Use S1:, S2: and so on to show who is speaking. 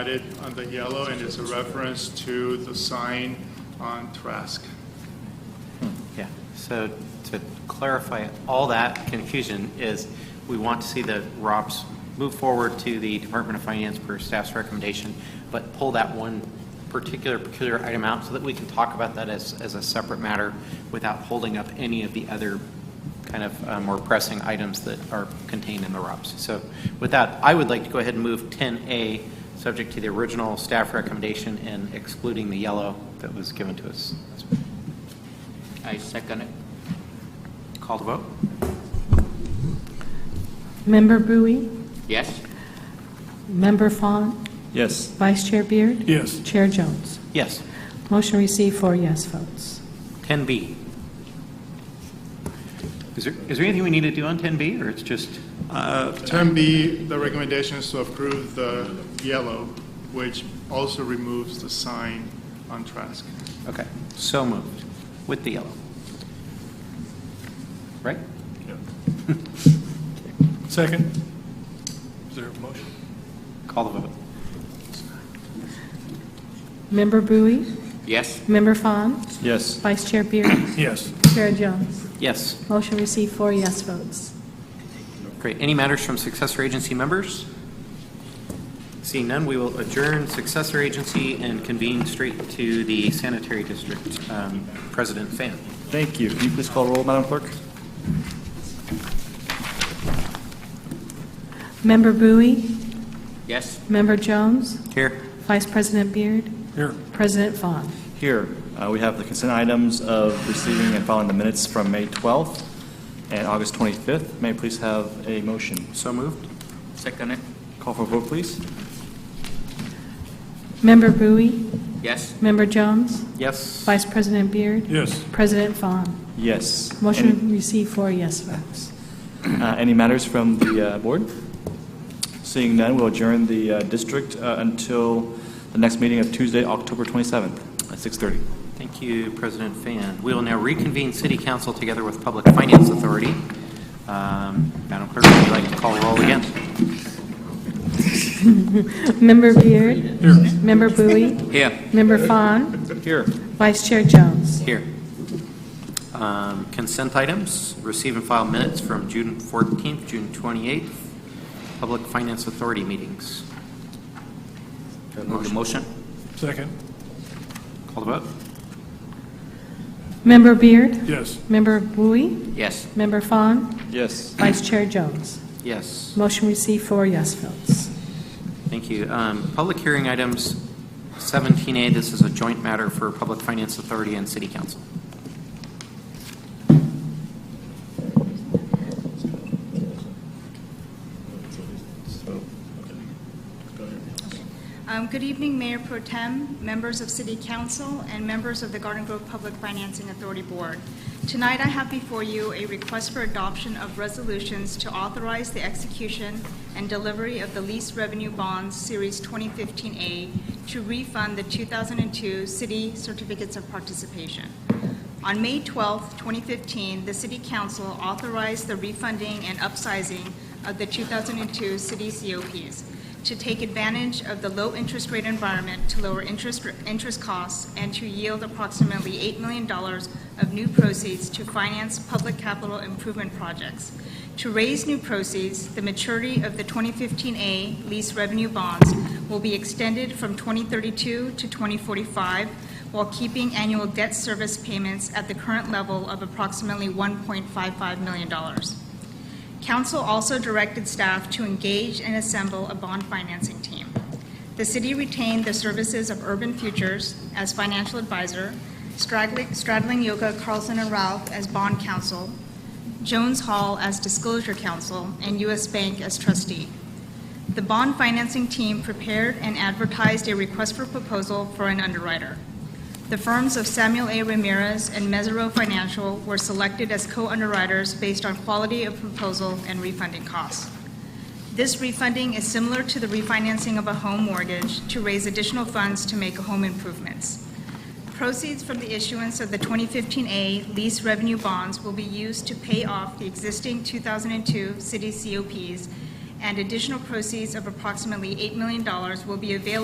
S1: added on the yellow, and it's a reference to the sign on Trask.
S2: Yeah, so to clarify, all that confusion is, we want to see the ROPS move forward to the Department of Finance per staff's recommendation, but pull that one particular peculiar item out so that we can talk about that as, as a separate matter without holding up any of the other kind of uh, more pressing items that are contained in the ROPS. So with that, I would like to go ahead and move 10A, subject to the original staff recommendation and excluding the yellow that was given to us.
S3: I second it.
S2: Call to vote?
S4: Member Bowie?
S3: Yes?
S4: Member Fawn?
S5: Yes.
S4: Vice Chair Beard?
S5: Yes.
S4: Chair Jones?
S2: Yes.
S4: Motion received, four yes votes.
S2: 10B. Is there, is there anything we need to do on 10B, or it's just,
S1: 10B, the recommendation is to approve the yellow, which also removes the sign on Trask.
S2: okay, so moved, with the yellow? Right?
S5: Second. Is there a motion?
S2: Call the vote.
S4: Member Bowie?
S3: Yes?
S4: Member Fawn?
S5: Yes.
S4: Vice Chair Beard?
S5: Yes.
S4: Chair Jones?
S2: Yes.
S4: Motion received, four yes votes.
S2: Great. Any matters from successor agency members? Seeing none, we will adjourn successor agency and convene straight to the sanitary district. Um, President Fan.
S5: Thank you. Can you please call roll, Madam Clerk?
S4: Member Bowie?
S3: Yes?
S4: Member Jones?
S2: Here.
S4: Vice President Beard?
S5: Here.
S4: President Fawn?
S5: Here, uh, we have the consent items of receiving and filing the minutes from May 12th and August 25th. May I please have a motion?
S2: So moved?
S3: Second it.
S5: Call for a vote, please.
S4: Member Bowie?
S3: Yes?
S4: Member Jones?
S2: Yes.
S4: Vice President Beard?
S5: Yes.
S4: President Fawn?
S5: Yes.
S4: Motion received, four yes votes.
S5: Any- uh, Any matters from the uh, board? Seeing none, we'll adjourn the uh, district uh, until the next meeting of Tuesday, October 27th at 6:30.
S2: Thank you, President Fan. We will now reconvene City Council together with Public Finance Authority. Um, Madam Clerk, would you like to call roll again?
S4: Member Beard? Member Bowie?
S3: Here.
S4: Member Fawn?
S5: Here.
S4: Vice Chair Jones?
S2: Here. Um, Consent items, receive and file minutes from June 14th, June 28th, Public Finance Authority meetings.
S3: Move the motion?
S1: Second.
S2: Call the vote.
S4: Member Beard?
S1: Yes.
S4: Member Bowie?
S3: Yes?
S4: Member Fawn?
S5: Yes.
S4: Vice Chair Jones?
S2: Yes.
S4: Motion received, four yes votes.
S2: Thank you. Um, Public hearing items, 17A, this is a joint matter for Public Finance Authority and City Council.
S6: Um, Good evening, Mayor Pro Tem, members of City Council, and members of the Garden Grove Public Financing Authority Board. Tonight, I have before you a request for adoption of resolutions to authorize the execution and delivery of the lease revenue bonds, Series 2015A, to refund the 2002 city certificates of participation. On May 12, 2015, the City Council authorized the refunding and upsizing of the 2002 city COPs to take advantage of the low interest rate environment to lower interest, interest costs and to yield approximately $8 million of new proceeds to finance public capital improvement projects. To raise new proceeds, the maturity of the 2015A lease revenue bonds will be extended from 2032 to 2045 while keeping annual debt service payments at the current level of approximately $1.55 million. Council also directed staff to engage and assemble a bond financing team. The city retained the services of Urban Futures as financial advisor, Straddling Straddling Yoga Carlson and Ralph as bond counsel, Jones Hall as disclosure counsel, and U.S. Bank as trustee. The bond financing team prepared and advertised a request for proposal for an underwriter. The firms of Samuel A. Ramirez and Mesereau Financial were selected as co-underwriters based on quality of proposal and refunding costs. This refunding is similar to the refinancing of a home mortgage to raise additional funds to make home improvements. Proceeds from the issuance of the 2015A lease revenue bonds will be used to pay off the existing 2002 city COPs, and additional proceeds of approximately $8 million will be available